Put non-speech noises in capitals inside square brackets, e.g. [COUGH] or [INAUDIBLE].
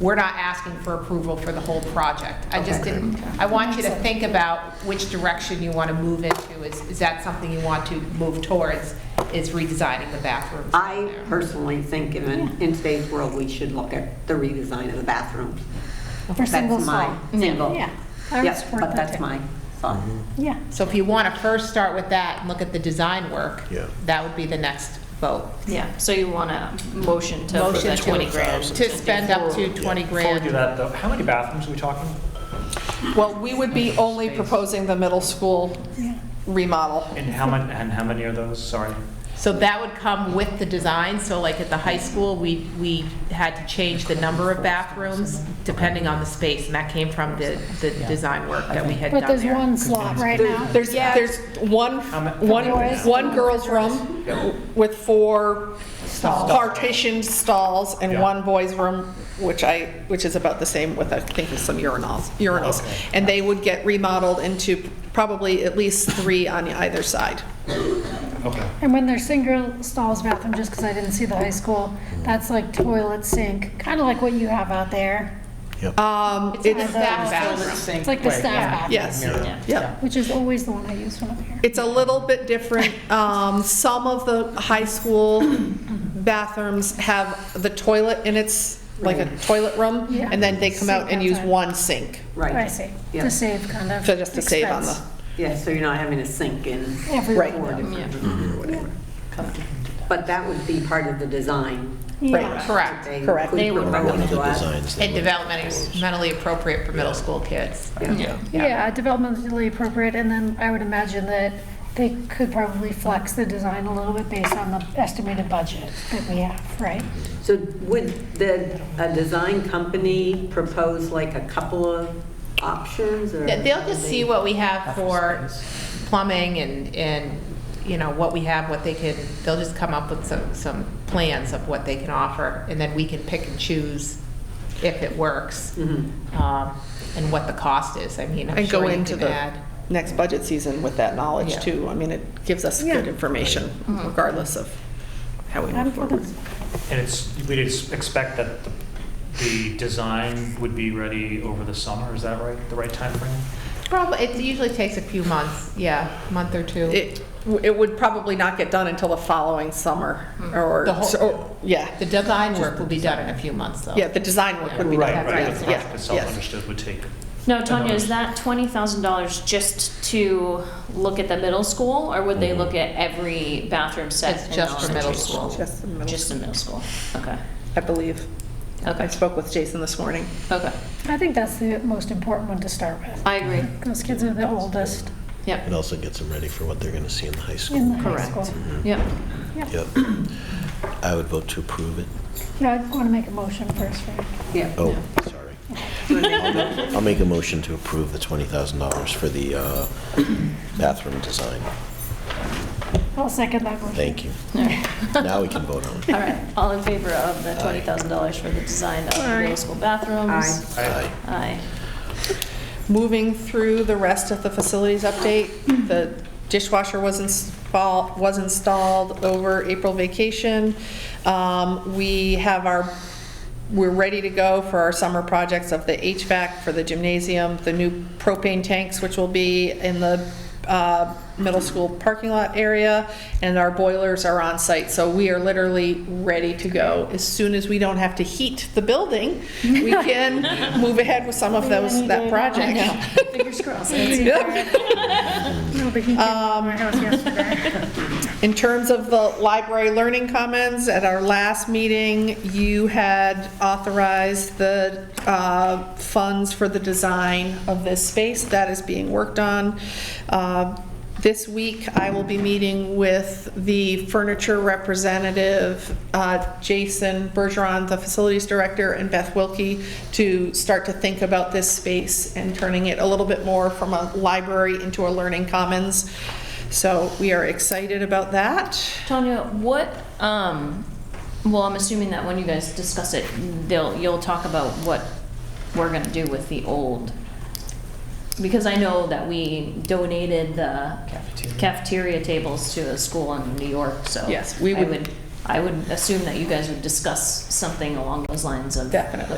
we're not asking for approval for the whole project. I just Okay. didn't, I want you to think about which direction you want to move into. Is, is that something you want to move towards, is redesigning the bathrooms? down I there? personally think in, in today's world, we should look at the redesign of the bathrooms. Or single That's my, stall. single. Yeah. I would Yes, support but that that's too. my thought. Yeah. So if you want to first start with that and look at the design work, Yeah. that would be the next vote. Yeah, so you want a motion to, for Motion the to- 20 grand. To spend up to 20 Before we do grand. that, though, how many bathrooms are we talking? Well, we would be only proposing the middle school remodel. And how many, and how many are those? Sorry. So that would come with the design, so like at the high school, we, we had to change the number of bathrooms depending on the space, and that came from the, the design work that we had But done there's there. one slot right now. There's, there's one, one, Boys. one girls' room with four partitioned stalls and Yeah. one boys' room, which I, which is about the same with, I think, with some urinals, urinals. And they would get remodeled into probably at least three on either side. Okay. And when they're single stalls bathroom, just because I didn't see the high school, that's like toilet sink, kind of like what you have out there. Um, It's a it's- staff bathroom. It's like the staff bathroom, yes, yeah. which is always the one I use when I'm here. It's a little bit different. Um, Some of the high school bathrooms have the toilet in its, like a toilet room, Yeah. and then they come out and use Sink outside. one sink, I Right. see, Yeah. to save kind of. so just to save on the, expense. Yeah, so you're not having a sink in Everywhere. four different rooms or whatever. But that would be part of the design. right. Correct. They Correct. could They would propose One of the to us. designs. that And were- developmentally mentally appropriate for middle school kids. Yeah. Yeah, developmentally appropriate, and then I would imagine that they could probably flex the design a little bit based on the estimated budget that we have, right? So would the, a design company propose like a couple of options or? Yeah, They'll just see what we have for plumbing and, and, you know, what we have, what they can, they'll just come up with some, some plans of what they can offer, and then we can pick and choose if it works, Mhm. um, and what the cost is. I mean, I'm And go sure you into can the add. next budget season with that knowledge, Yeah. Mm-hmm. too. I mean, it gives us Yeah. good information regardless of how we I'm move for forward. the- And it's, we'd ex- expect that the- the design would be ready over the summer, is that right, the right timeframe? Probably, it usually takes a few months, yeah, month or two. It, it would probably not get done until the following summer, Mm-hmm. or, The whole- or- yeah, The design work will be done in a few months, though. yeah, the design work would be Right, done. That's right, right. the Yeah, project itself yes. understood would take. No, Tonya, is that $20,000 just to look at the middle school, or would they look at every bathroom set? It's in just for middle elementary school. Just the middle, Just in middle school, okay, I believe. I okay, spoke with Jason this morning. okay. I think that's the most important one to start with. I agree, Those kids are the oldest yep, It also gets them ready for what they're going to see in the high in the school. high Correct. school. yep. Yep. [CLEARS THROAT] I would vote to approve it. No, I want to make a motion first, right? Yeah. Oh, sorry. I'll make a motion to approve the $20,000 for the uh, bathroom design. I'll second that motion. Thank you. Now we can vote on it. All right, all in favor of the $20,000 for the design of the middle school bathrooms? Aye. Aye. Moving through the rest of the facilities update, the dishwasher was installed, was installed over April vacation. Um, We have our, we're ready to go for our summer projects of the HVAC for the gymnasium, the new propane tanks, which will be in the uh, middle school parking lot area, and our boilers are on site. So we are literally ready to go. As soon as we don't have to heat the building, we can move ahead with some of those, that project. Fingers crossed. [LAUGHS] No, but he did my house yesterday. In terms of the library learning commons, at our last meeting, you had authorized the uh, funds for the design of this space. That is being worked on. Uh, This week, I will be meeting with the furniture representative, uh, Jason Bergeron, the facilities director, and Beth Wilkie, to start to think about this space and turning it a little bit more from a library into a learning commons. So we are excited about that. Tonya, what, um, well, I'm assuming that when you guys discuss it, they'll, you'll talk about what we're gonna do with the old. Because I know that we donated the cafeteria tables to a school in New York, so. Yes, we I would- I would assume that you guys would discuss something along those lines of. Definitely.